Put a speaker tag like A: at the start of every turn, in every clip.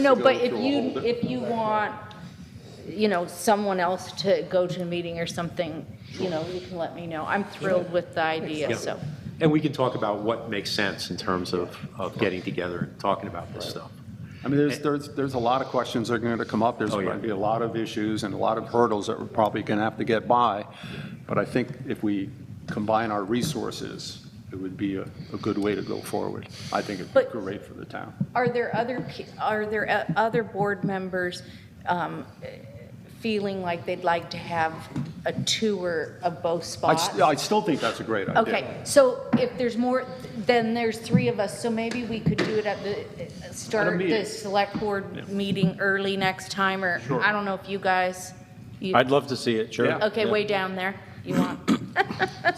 A: No,
B: go
A: but if
B: through a
A: you,
B: whole di-
A: if you want, you know, someone else to go to a meeting or something, you know, you can let me know. I'm thrilled with the idea, so.
C: And we can talk about what makes sense in terms of, of getting together and talking about this stuff.
B: I mean, there's, there's, there's a lot of questions that are going to come up. There's
C: Oh, yeah.
B: going to be a lot of issues and a lot of hurdles that we're probably going to have to get by. But I think if we combine our resources, it would be a, a good way to go forward. I think it'd be
A: But-
B: great for the town.
A: Are there other, pe- are there o- other board members um, feeling like they'd like to have a tour of both
B: I,
A: spots?
B: s- I still think that's a great idea.
A: Okay, so if there's more, then there's three of us, so maybe we could do it at the, uh, start the
B: meeting.
A: select board meeting early next time, or I don't know if you guys, you-
D: I'd love to see it, sure.
B: Yeah.
A: okay, way down there, you want,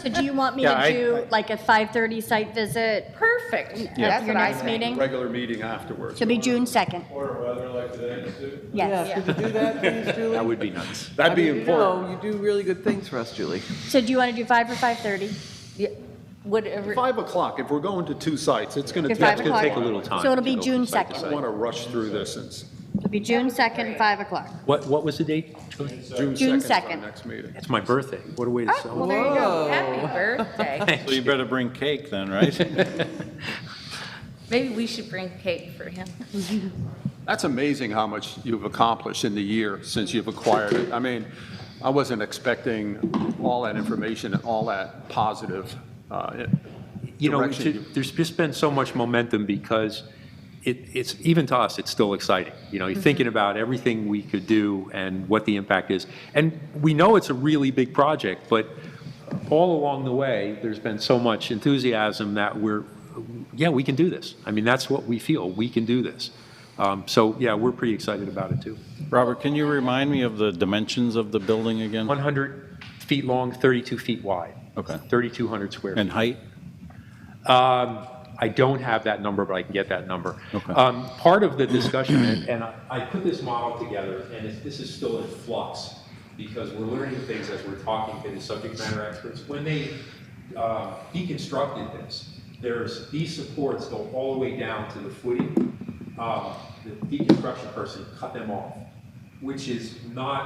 E: So do you want me
D: Yeah,
E: to
D: I-
E: do like a 5:30 site visit?
A: perfect.
E: That's
A: Your
E: what I
A: next
E: think.
A: meeting?
B: Regular meeting afterwards.
E: Should be June 2nd.
F: Or weather like today, too.
E: Yes.
G: Yeah, if you do that, please, Julie.
C: That would be nice.
D: That'd be
G: I mean,
D: important.
G: You know, you do really good things for us, Julie.
E: So do you want to do 5 or 5:30?
A: Yeah, Whatever,
B: Five o'clock, if we're going to two sites, it's going to
E: Do
B: take.
E: five
C: gonna
E: o'clock?
C: take a little time
E: So it'll be
C: to go
E: June
C: from site
B: I just
E: 2nd.
B: want to rush through this and s-
E: It'll be June 2nd, 5 o'clock.
C: What, what was the date?
B: June
E: June
B: 2nd is our
E: 2nd.
B: next meeting.
C: It's my birthday. What a way to
A: well,
C: celebrate.
A: there you go, happy birthday.
D: So you better bring cake then, right?
A: Maybe we should bring cake for him.
B: That's amazing how much you've accomplished in the year since you've acquired it. I mean, I wasn't expecting all that information and all that positive uh,
C: you know, we
B: direction
C: should-
B: you-
C: there's just been so much momentum because it, it's, even to us, it's still exciting. You know, you're thinking about everything we could do and what the impact is. And we know it's a really big project, but all along the way, there's been so much enthusiasm that we're, yeah, we can do this. I mean, that's what we feel, we can do this. Um, So, yeah, we're pretty excited about it, too.
D: Robert, can you remind me of the dimensions of the building again?
C: 100 feet long, 32 feet wide.
D: Okay.
C: 3,200 square feet.
D: And height?
C: I don't have that number, but I can get that number.
D: Okay.
C: Um, Part of the discussion, and and I I put this model together, and it's- this is still in flux, because we're learning things as we're talking to the subject matter experts. When they uh, deconstructed this, there's, these supports go all the way down to the footing. Um, The deconstruction person cut them off, which is not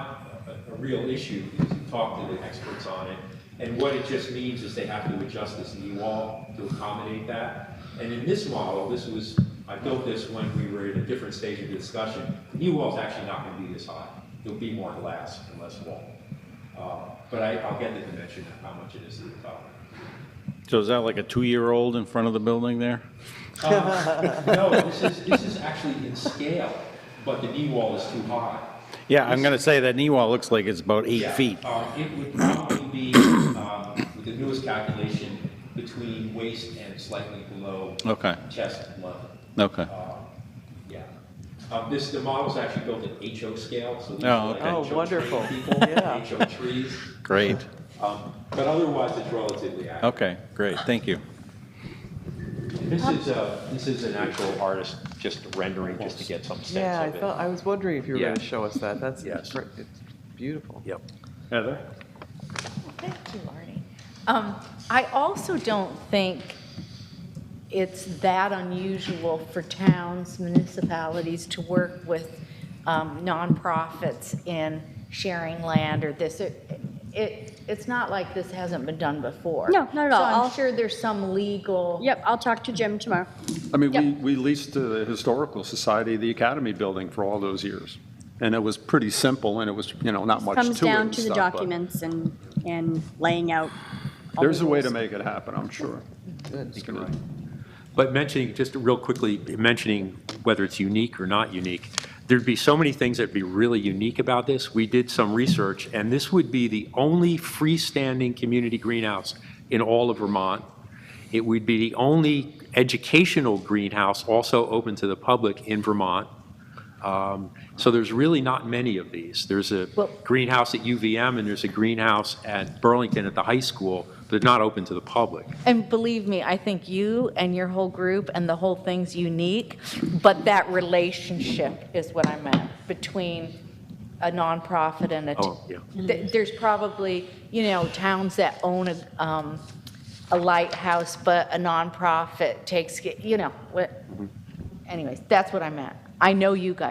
C: a- a real issue, because you talk to the experts on it. And what it just means is they have to adjust this knee wall to accommodate that. And in this model, this was, I built this when we were at a different stage of discussion. The knee wall's actually not gonna be this high. There'll be more glass and less wall. Uh, But I, I'll get the dimension of how much it is to the top.
D: So is that like a two-year-old in front of the building there?
C: No, this is, this is actually in scale, but the knee wall is too high.
D: Yeah, I'm going to say that knee wall looks like it's about eight
C: Yeah,
D: feet.
C: um, It would probably be, um, with the newest calculation, between waist and slightly below
D: Okay,
C: chest level. Uh,
D: okay.
C: Yeah. Um, This, the model's actually built at HO scale, so these
D: Oh,
C: are like
D: okay.
G: Oh,
C: HO
G: wonderful.
C: tree people,
G: Yeah.
C: HO trees.
D: Great.
C: Um, But otherwise, it's relatively accurate.
D: Okay, great, thank you.
C: This is, uh, this is an actual artist just rendering, just to get some sense of it.
G: Yeah, I thought, I was wondering if you were
C: Yeah.
G: going to show us that. That's,
C: Yes.
G: gr- it's beautiful.
C: Yep.
D: Heather?
A: Thank you, Arnie. Um, I also don't think it's that unusual for towns, municipalities to work with um, nonprofits in sharing land or this. It, it- it's not like this hasn't been done before.
E: No, not at all.
A: So I'm
E: I'll-
A: sure there's some legal.
E: Yep, I'll talk to Jim tomorrow.
B: I mean,
A: Yep.
B: we, we leased to the Historical Society, the Academy Building for all those years. And it was pretty simple and it was, you know, not much to it
E: Comes down
B: and
E: to the
B: stuff, but
E: documents and, and laying out. all
B: There's
E: the
B: a way to
E: rules.
B: make it happen, I'm sure. It's gonna-
C: But mentioning, just real quickly, mentioning whether it's unique or not unique, there'd be so many things that'd be really unique about this. We did some research, and this would be the only freestanding community greenhouse in all of Vermont. It would be the only educational greenhouse also open to the public in Vermont. Um, So there's really not many of these. There's a
A: Well-
C: greenhouse at UVM, and there's a greenhouse at Burlington at the high school, but they're not open to the public.
A: And believe me, I think you and your whole group and the whole thing's unique, but that relationship is what I meant between a nonprofit and a. t-
C: Oh, yeah.
A: Th- There's probably, you know, towns that own a, um, a lighthouse, but a
C: Mm-hmm.
A: nonprofit takes, ca- you know, what, anyways, that's what I meant. I know you guys.